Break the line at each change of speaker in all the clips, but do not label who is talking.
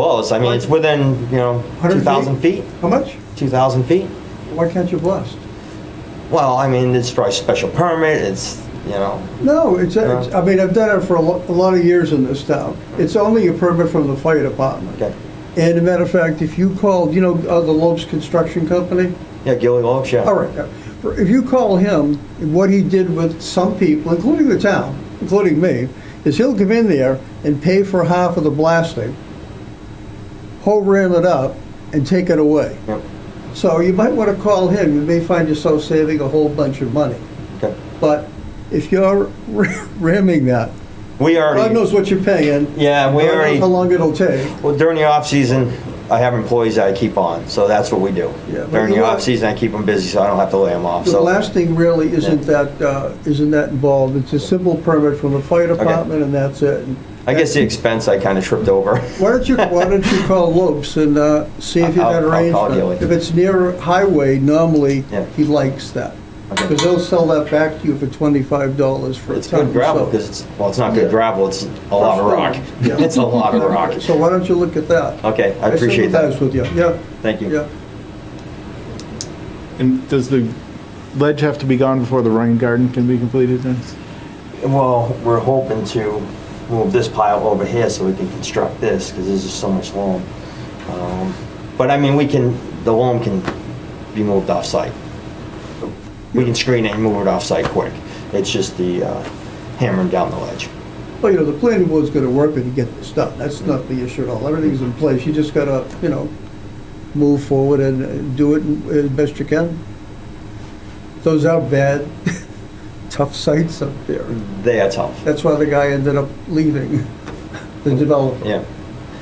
Close, I mean, it's within, you know,
100 feet?
2,000 feet,
How much?
2,000 feet.
Why can't you blast?
Well, I mean, it's probably special permit, it's, you know,
No, it's, it's- I mean, I've done it for a lo- a lot of years in this town. It's only a permit from the fire department.
okay.
And a matter of fact, if you called, you know, uh, the Lopes Construction Company?
Yeah, Gilly Oaks, yeah.
All right, uh, if you call him, what he did with some people, including the town, including me, is he'll come in there and pay for half of the blasting, whole ram it up, and take it away.
Yep,
So you might want to call him, you may find yourself saving a whole bunch of money.
okay.
But if you're ramming that,
We
God
already,
knows what you're paying.
yeah, we
God knows
already,
How long it'll take.
well, during the off-season, I have employees that I keep on, so that's what we do.
Yeah, but
During
you
the
are-
off-season, I keep them busy, so I don't have to lay them off,
The
so.
blasting really isn't that, uh, isn't that involved. It's a simple permit from the fire department and that's it.
I guess the expense I kind of tripped over.
Why don't you, why don't you call Lopes and uh, see if you got
I'll- I'll- I'll call
arrangement?
Gilly.
If it's near a highway, normally,
Yeah.
he likes that.
Okay.
Because they'll sell that back to you for twenty-five dollars for a ton.
It's good gravel,
so-
because it's, well, it's not good gravel, it's a lot of rock.
Yeah.
It's a lot of rock.
So why don't you look at that?
Okay, I appreciate
sympathize
that.
with you, yeah,
Thank you.
yeah.
And does the ledge have to be gone before the rain garden can be completed then?
Well, we're hoping to move this pile over here so we can construct this, because there's just so much loam. Um, But I mean, we can, the loam can be moved off-site. We can screen it and move it off-site quick. It's just the uh, hammering down the ledge.
Well, you know, the planning board's gonna work with you to get this done, that's not the issue at all, everything's in place, you just gotta, you know, move forward and uh, do it as best you can. Those are bad, tough sites up there,
They are tough.
that's why the guy ended up leaving, the developer.
Yeah.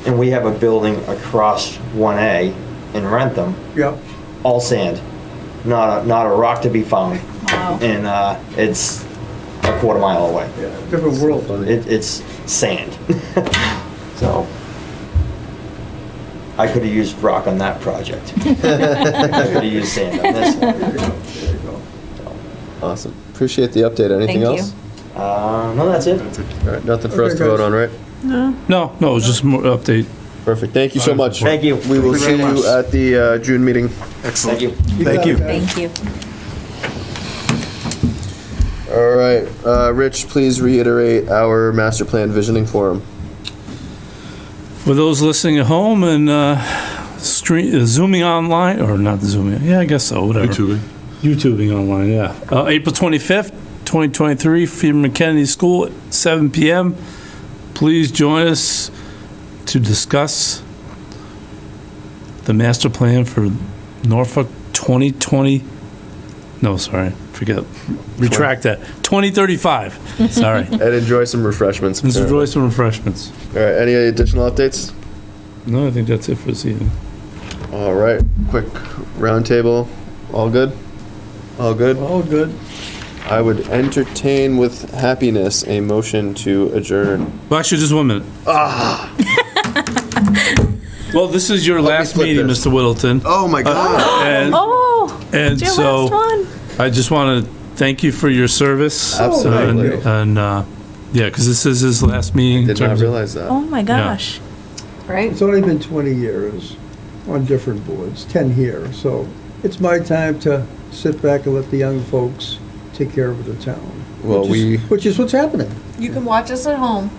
And we have a building across 1A in Rentham,
Yeah,
all sand, not a, not a rock to be found. And uh, it's a quarter mile away.
yeah, different world.
It, it's sand. so I could have used rock on that project. I could have used sand on this one.
There you go, there you go.
Awesome. Appreciate the update. Anything
Thank you.
else?
Uh, no, that's it.
All right, nothing for us
Okay,
to vote
guys.
on, right?
No, no, it was just more update.
Perfect. Thank you so much.
Thank you.
We will see
Thank you very
you
much.
at the uh, June meeting.
Thank you.
Thank
got it,
you.
guys.
Thank you.
All right, uh, Rich, please reiterate our master plan visioning forum.
For those listening at home and uh, stream, uh, zooming online, or not zooming, yeah, I guess so, whatever.
YouTubing.
YouTubing online, yeah. Uh, April 25th, 2023, Freeman Kennedy School, at 7 p.m. Please join us to discuss the master plan for Norfolk 2020. No, sorry, forget. Retract that. 2035. Sorry.
And enjoy some refreshments.
Let's
All
enjoy some refreshments.
right, any additional updates?
No, I think that's it for this evening.
All right, quick roundtable. All good? All good?
All good.
I would entertain with happiness a motion to adjourn.
Well, actually, just one minute.
Ah.
well, this is your last
flip
meeting,
this.
Mr. Whittleton. Uh,
Oh my God.
And,
Oh,
and
it's your
so
last one.
I just want to thank you for your service.
Absolutely.
And, and, uh, yeah, because this is his last meeting. in
Did not
terms of-
realize that.
Oh my gosh.
It's only been 20 years on different boards, 10 here, so it's my time to sit back and let the young folks take care of the town.
Well,
which is-
we-
Which is what's happening.
You can watch us at home.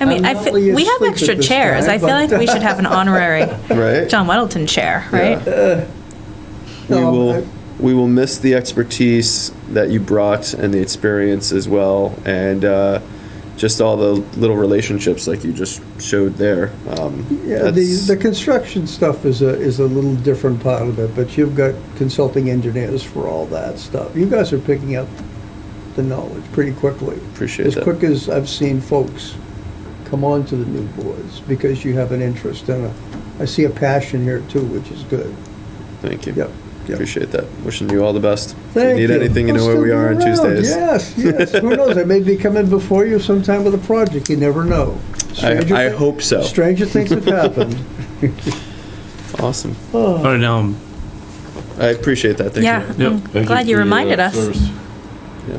I mean,
I'm
I
not
feel,
really
we have
asleep at
extra
this
chairs.
time,
I feel
but-
like we should have an honorary
Right?
John Weddleton chair, right?
we
No,
will
I-
we will miss the expertise that you brought and the experience as well and uh, just all the little relationships like you just showed there um,
Yeah, the,
that's-
the construction stuff is a, is a little different part of it, but you've got consulting engineers for all that stuff. You guys are picking up the knowledge pretty quickly.
Appreciate
As
that.
quick as I've seen folks come on to the new boards, because you have an interest and a, I see a passion here too, which is good.
thank you
Yep, yep.
appreciate that wishing you all the best
Thank
if you need anything you
I'll
know where we
still
are on
be around.
tuesdays
Yes, yes. Who knows? I may be coming before you sometime with a project. You never know. Stranger
I, I
thi-
hope so
Stranger things have happened. Oh,
awesome
All right, now, um,
i appreciate that thank
Yeah.
you
Yep.
I'm
Thank
Glad you reminded us.
yeah.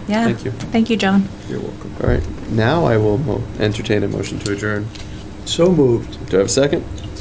Yeah.
thank you
Thank you, John.
You're welcome.
all right now i will mo- entertain a motion to adjourn
So moved.
do i have a second